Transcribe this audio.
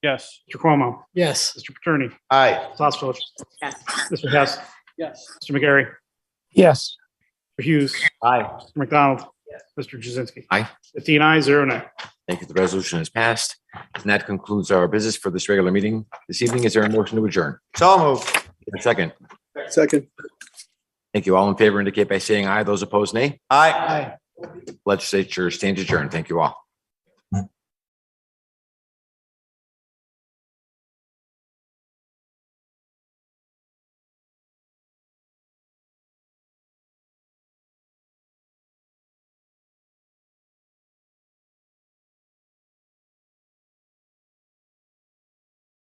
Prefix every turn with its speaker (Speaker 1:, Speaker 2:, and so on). Speaker 1: Yes. Mr. Cuomo.
Speaker 2: Yes.
Speaker 1: Mr. Paterno.
Speaker 3: Aye.
Speaker 1: Ms. Hossfeld.
Speaker 4: Yes.
Speaker 1: Mr. Hess.
Speaker 2: Yes.
Speaker 1: Mr. McGarry.
Speaker 2: Yes.
Speaker 1: Mr. Hughes.
Speaker 3: Aye.
Speaker 1: Mr. McDonald. Mr. Jazinski.
Speaker 5: Aye.
Speaker 1: Fifteen ayes, zero nay.
Speaker 5: Thank you. The resolution is passed. And that concludes our business for this regular meeting this evening. Is there a motion to adjourn?
Speaker 3: So moved.
Speaker 5: A second.
Speaker 3: Second.
Speaker 5: Thank you. All in favor indicate by saying aye. Those opposed, nay.
Speaker 3: Aye.
Speaker 5: Legislature stands adjourned. Thank you all.